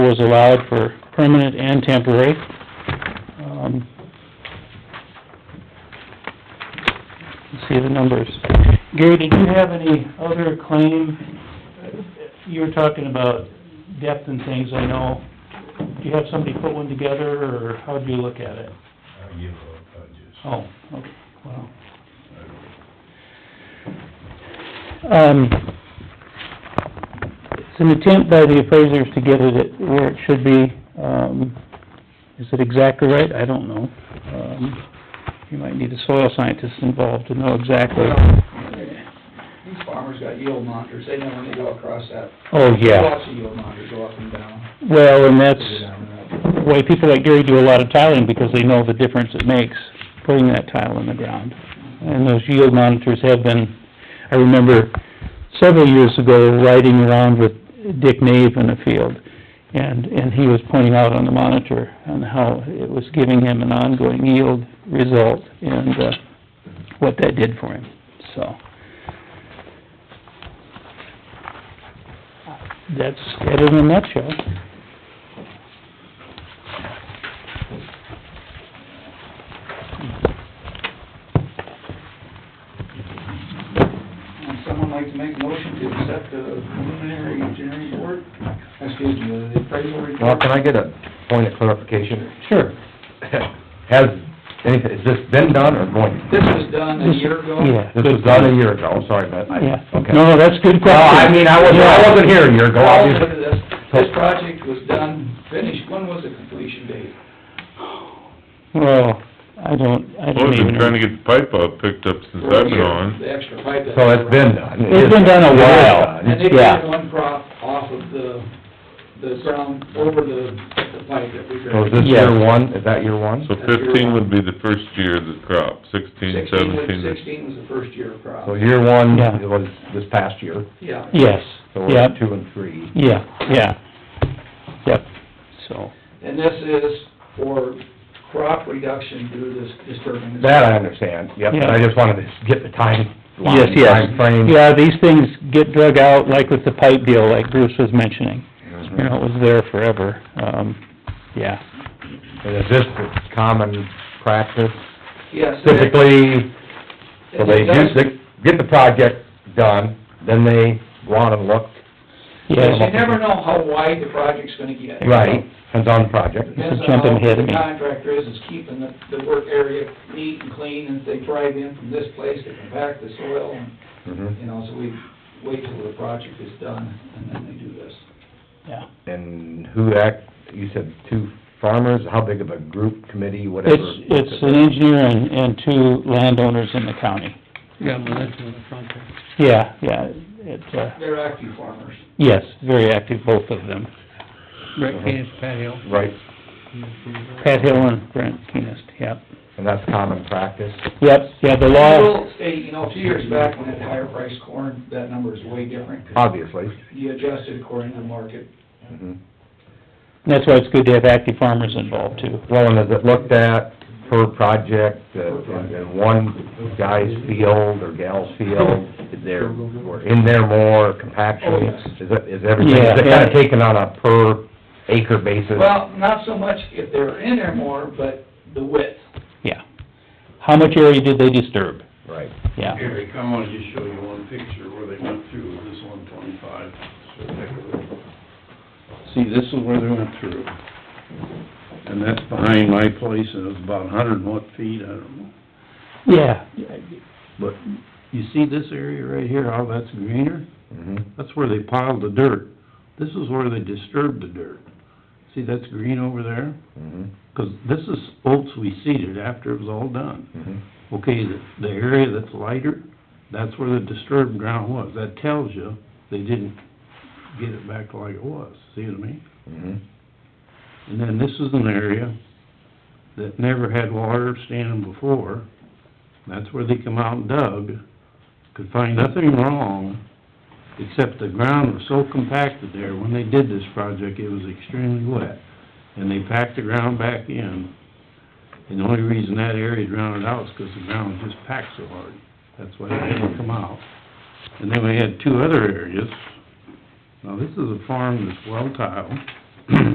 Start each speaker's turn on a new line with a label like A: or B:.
A: was allowed for permanent and temporary. Um, let's See the numbers. Gary, did you have any other claim? You were talking about depth and things, I know. Do you have somebody put one together, or how'd you look at it?
B: I give up, I just,
A: Oh, okay, wow.
B: I don't,
A: Um, it's an attempt by the appraisers to get it at where it should be. Um, is it exactly right? I don't know. Um, you might need a soil scientist involved to know exactly.
C: These farmers got yield monitors, they know when they go across that.
A: Oh, yeah.
C: Lots of yield monitors go up and down.
A: Well, and that's
C: go down and up.
A: why people like Gary do a lot of tiling, because they know the difference it makes putting that tile in the ground. And those yield monitors have been, I remember several years ago riding around with Dick Nave in a field, and, and he was pointing out on the monitor on how it was giving him an ongoing yield result and, uh, what that did for him, so. That's it in a nutshell.
C: Would uh, someone like to make a motion to accept the preliminary engineering report, excuse me, the appraisal report?
D: Well, can I get a point of clarification?
A: Sure.
D: Has anything, has this been done or going? to be?
C: This was done a year ago.
A: Yeah.
D: This was done a year ago, I'm sorry, but I,
A: Yeah,
D: okay.
A: no, no, that's a good
D: Well,
A: question.
D: I mean, I wasn't, I wasn't here a year ago,
C: Well,
D: obviously.
C: this, this project was done, finished, when was the completion date?
A: Well, I don't, I
E: Well,
A: don't
E: I've
A: even
E: been
A: know.
E: trying to get the pipe out picked up since I've been on.
C: The extra pipe that.
D: So it's been done. It
A: It's
D: is
A: been done a
D: It is
A: while.
D: done.
C: And they
A: Yeah.
C: did one crop off of the, the ground, over the, the pipe that we
D: So
C: drilled.
D: is this
A: Yeah.
D: year one, is that year one?
E: So fifteen would be the first year of the crop, sixteen,
C: Sixteen was,
E: seventeen. Oh,
C: sixteen was the first year of crop,
D: So year one,
A: Yeah.
D: it was this past year,
C: yeah.
A: Yes,
D: so we're
A: yep,
D: at two and three.
A: yeah, yeah, yep, so,
C: And this is for crop reduction due to this disturbance.
D: That I understand, yep, but I
A: Yeah.
D: just wanted to get the time line,
A: yes, yes.
D: timeframe.
A: Yeah, these things get dug out, like with the pipe deal, like Bruce was mentioning, you know, it was there forever, um, yeah.
D: And is this the common practice?
C: Yes. and it-
D: Typically, So they
C: it does-
D: do, they get the project done, then they go on and look.
C: But you
A: Yeah,
C: never know how wide the project's gonna get.
D: Depends on the project.
C: Depends on
A: Jumping
C: how
A: ahead of
C: the
A: me.
C: contractor is, is keeping the, the work area neat and clean, and if they drive in from this place, they compact the soil, and, you
D: Mhm.
C: know, so we wait till the project is done, and then they do this.
A: yeah.
D: And who act, you said two farmers, how big of a group, committee, whatever?
A: It's, it's an engineer and, and two landowners in the county,
F: Yeah, well, that's in the front there.
A: yeah, yeah, it, uh,
C: They're active farmers.
A: yes, very active, both of them,
B: Uh-huh.
F: Brett Keenest, Pat Hill.
D: Right,
A: Pat Hill and Brent Keenest, yep.
D: and that's common practice.
A: Yep, yeah, the
C: I
A: law,
C: will say, you know, a few years back, when that higher priced corn, that number is way different, 'cause
D: Obviously.
C: you adjust it according to the market.
D: Mhm.
A: that's why it's good to have active farmers involved too.
D: Well, and is it looked at per project, uh, in in one guy's field or gal's field, they're, or in there more compaction?
C: Oh, yes.
D: Is it, is everything, is
A: Yeah,
D: it kind
A: yeah.
D: of taken on a per acre basis?
C: Well, not so much if they're in there more, but the width.
A: Yeah. How much area did they disturb?
D: Right.
A: Yeah.
B: Gary, come on, just show you one picture where they went through with this one twenty-five. See, this is where they went through. And that's behind my place, and it was about a hundred and what feet, I don't know.
A: Yeah.
B: But you see this area right here, how that's greener?
D: Mhm.
B: That's where they piled the dirt. This is where they disturbed the dirt. See, that's green over there?
D: Mhm.
B: 'Cause this is oats we seeded after it was all done.
D: Mhm.
B: Okay, the, the area that's lighter, that's where the disturbed ground was. That tells you they didn't get it back like it was, see what I mean?
D: Mhm.
B: And then this is an area that never had water standing before. That's where they come out and dug, could find nothing wrong, except the ground was so compacted there. When they did this project, it was extremely wet, and they packed the ground back in. And the only reason that area drowned out is 'cause the ground was just packed so hard. That's why it didn't come out. And then we had two other areas. Now, this is a farm that's well tiled,